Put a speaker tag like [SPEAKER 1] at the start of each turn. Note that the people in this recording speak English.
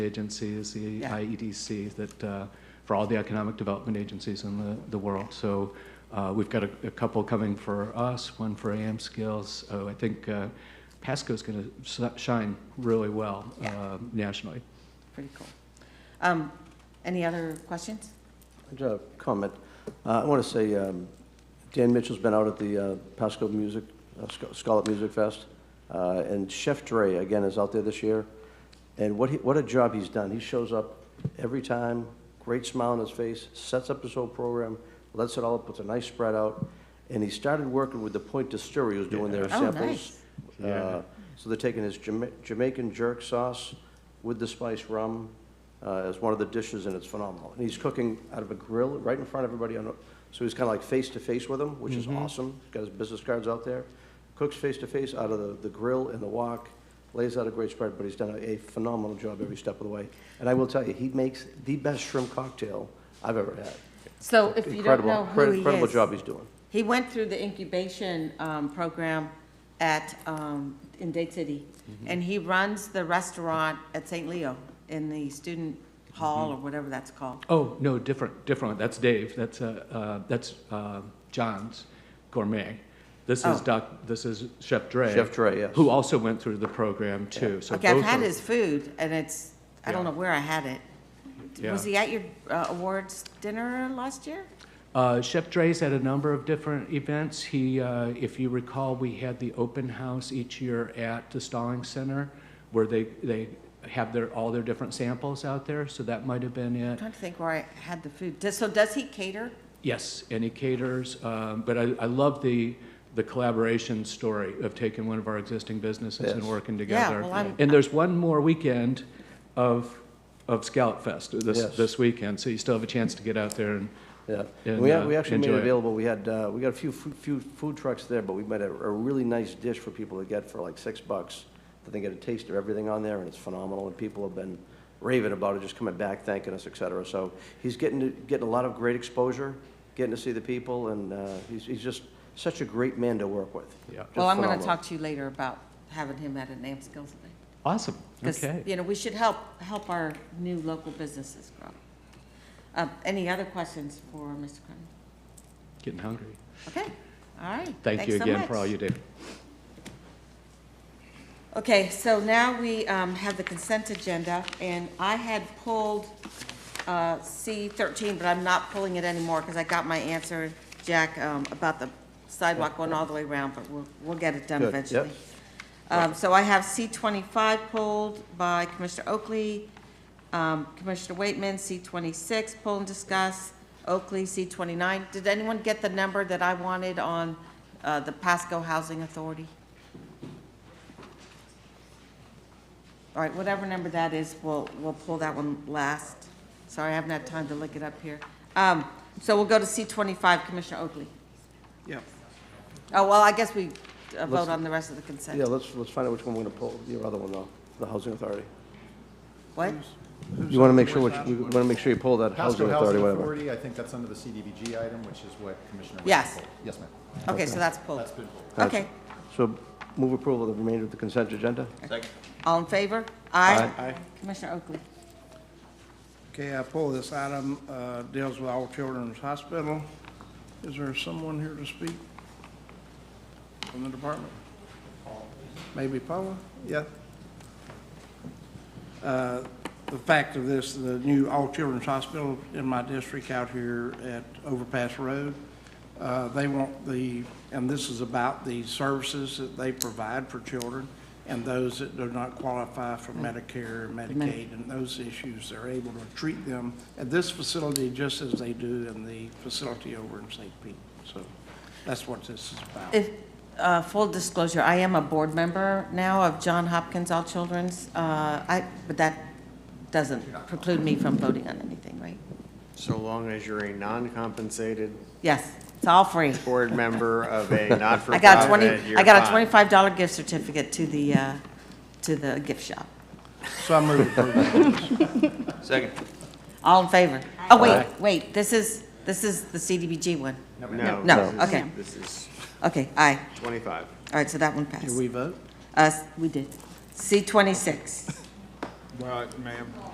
[SPEAKER 1] agency is the
[SPEAKER 2] Yeah.
[SPEAKER 1] IEDC that, uh, for all the economic development agencies in the, the world. So uh, we've got a, a couple coming for us, one for AM Skills. So I think uh, Pasco's going to shine really well uh, nationally.
[SPEAKER 2] Pretty cool. Um, Any other questions?
[SPEAKER 3] I just have a comment. Uh, I want to say, um, Dan Mitchell's been out at the uh, Pasco Music, uh, Sc- Scarlet Music Fest, uh, and Chef Dre, again, is out there this year. And what, he- what a job he's done. He shows up every time, great smile on his face, sets up his whole program, lets it all, puts a nice spread out. And he started working with the Point Distillery, who's doing their
[SPEAKER 2] Yeah. Oh,
[SPEAKER 3] samples.
[SPEAKER 2] nice.
[SPEAKER 3] Uh, So they're taking his Jama- Jamaican jerk sauce with the spiced rum uh, as one of the dishes, and it's phenomenal. And he's cooking out of a grill right in front of everybody on, a- so he's kind of like face-to-face with them, which is awesome. He's Got his business cards out there. Cooks face-to-face out of the the grill and the wok, lays out a great spread, but he's done a phenomenal job every step of the way. And I will tell you, he makes the best shrimp cocktail I've ever had.
[SPEAKER 2] So if you don't
[SPEAKER 3] Incredible,
[SPEAKER 2] know who
[SPEAKER 3] incre-
[SPEAKER 2] he
[SPEAKER 3] Incredible
[SPEAKER 2] is,
[SPEAKER 3] job he's doing.
[SPEAKER 2] He went through the incubation um, program at, um, in Dade City, and he runs the restaurant at St. Leo in the student hall or whatever that's called.
[SPEAKER 1] Oh, no, different, different. That's Dave. That's, uh, uh, that's uh, John's Gourmet. This is
[SPEAKER 2] Oh.
[SPEAKER 1] Doc, this is Chef Dre.
[SPEAKER 3] Chef Dre, yes.
[SPEAKER 1] Who also went through the program too. So
[SPEAKER 2] Okay, I've
[SPEAKER 1] both
[SPEAKER 2] had
[SPEAKER 1] are-
[SPEAKER 2] his food, and it's, I don't know
[SPEAKER 1] Yeah.
[SPEAKER 2] where I had it. Was
[SPEAKER 1] Yeah.
[SPEAKER 2] he at your uh, awards dinner last year?
[SPEAKER 1] Uh, Chef Dre's at a number of different events. He, uh, if you recall, we had the open house each year at the Stalling Center, where they they have their all their different samples out there. So that might have been
[SPEAKER 2] I'm
[SPEAKER 1] it.
[SPEAKER 2] trying to think where I had the food. Does- So does he cater?
[SPEAKER 1] Yes, and he caters. Um, but I, I love the the collaboration story of taking one of our existing businesses and
[SPEAKER 3] Yes.
[SPEAKER 1] working together.
[SPEAKER 2] well, I'm-
[SPEAKER 1] and there's one more weekend of of Scout Fest this
[SPEAKER 3] Yes.
[SPEAKER 1] this weekend, so you still have a chance to get out there and
[SPEAKER 3] Yeah,
[SPEAKER 1] and,
[SPEAKER 3] we,
[SPEAKER 1] uh,
[SPEAKER 3] had- we actually made
[SPEAKER 1] enjoy
[SPEAKER 3] it
[SPEAKER 1] it.
[SPEAKER 3] available, we had, uh, we got a few, fu- few food trucks there, but we made a, a really nice dish for people to get for like six bucks. That they get a taste of everything on there, and it's phenomenal, and people have been raving about it, just coming back, thanking us, et cetera. So he's getting, to- getting a lot of great exposure, getting to see the people, and, uh, he's, he's just such a great man to work with.
[SPEAKER 1] Yeah.
[SPEAKER 2] Well, I'm going to
[SPEAKER 3] Phenomenal.
[SPEAKER 2] talk to you later about having him at an AM skills event.
[SPEAKER 1] awesome.
[SPEAKER 2] Because,
[SPEAKER 1] okay.
[SPEAKER 2] you know, we should help, help our new local businesses grow. Uh, Any other questions for Mr. Cronin?
[SPEAKER 1] Getting hungry.
[SPEAKER 2] Okay, all right.
[SPEAKER 1] Thank you
[SPEAKER 2] Thanks so
[SPEAKER 1] again for all
[SPEAKER 2] much.
[SPEAKER 1] you do.
[SPEAKER 2] Okay, so now we um, have the consent agenda, and I had pulled C-13, but I'm not pulling it anymore because I got my answer, Jack, um, about the sidewalk going all the way around, but we'll, we'll get it done
[SPEAKER 3] Good, yep.
[SPEAKER 2] eventually. Um, So I have C-25 pulled by Commissioner Oakley, um, Commissioner Waitman, C-26 pull and discuss, Oakley, C-29. Did anyone get the number that I wanted on uh, the Pasco Housing Authority? All right, whatever number that is, we'll, we'll pull that one last. Sorry, I haven't had time to look it up here. Um, So we'll go to C twenty-five, Commissioner Oakley.
[SPEAKER 3] Yeah.
[SPEAKER 2] Oh, well, I guess we uh, vote
[SPEAKER 3] Let's-
[SPEAKER 2] on the rest of the
[SPEAKER 3] Yeah,
[SPEAKER 2] consent.
[SPEAKER 3] let's, let's find out which one we're gonna pull, your other one though, the housing authority.
[SPEAKER 2] What?
[SPEAKER 3] You wanna make sure,
[SPEAKER 4] where's
[SPEAKER 3] which
[SPEAKER 4] that
[SPEAKER 3] we
[SPEAKER 4] one?
[SPEAKER 3] wanna make sure you pull that
[SPEAKER 4] Pasco
[SPEAKER 3] housing authority,
[SPEAKER 4] Housing
[SPEAKER 3] whatever.
[SPEAKER 4] Authority, I think that's under the CDBG item, which is what Commissioner. Wade
[SPEAKER 2] Yes.
[SPEAKER 4] pulled. Yes, ma'am.
[SPEAKER 2] Okay, so that's pulled.
[SPEAKER 4] That's been pulled.
[SPEAKER 3] Gotcha.
[SPEAKER 2] Okay,
[SPEAKER 3] So move approval of the remainder of the consent agenda?
[SPEAKER 2] all in favor? Aye.
[SPEAKER 5] Aye.
[SPEAKER 2] Commissioner Oakley.
[SPEAKER 5] Okay, I pull this item, uh, deals with All Children's Hospital. Is there someone here to speak from the department? Maybe Paula? Yeah. Uh, The fact of this, the new All Children's Hospital in my district out here at Overpass Road, uh, they want the, and this is about the services that they provide for children and those that do not qualify for Medicare, Medicaid, and those issues, they're able to treat them at this facility just as they do in the facility over in St. Pete. So that's what this is about.
[SPEAKER 2] If, uh, full disclosure, I am a board member now of John Hopkins All Children's. Uh, I, but that doesn't preclude me from voting on anything, right?
[SPEAKER 6] So long as you're a non-compensated
[SPEAKER 2] Yes, it's all free.
[SPEAKER 6] board member of a
[SPEAKER 2] I got a
[SPEAKER 6] not-for-profit,
[SPEAKER 2] twenty,
[SPEAKER 6] you're
[SPEAKER 2] I got a
[SPEAKER 6] fine.
[SPEAKER 2] twenty-five dollar gift certificate to the, uh, to the gift shop.
[SPEAKER 5] So I move approval.
[SPEAKER 2] All in favor? Oh, wait, wait, this is, this is the CDBG one.
[SPEAKER 6] No.
[SPEAKER 2] No,
[SPEAKER 6] this is-
[SPEAKER 2] okay.
[SPEAKER 6] This is
[SPEAKER 2] Okay, aye.
[SPEAKER 6] 25.
[SPEAKER 2] All right, so that one
[SPEAKER 5] Do
[SPEAKER 2] passed. Uh,
[SPEAKER 5] we vote?
[SPEAKER 2] Us, we did. C twenty-six.
[SPEAKER 7] Well, ma'am,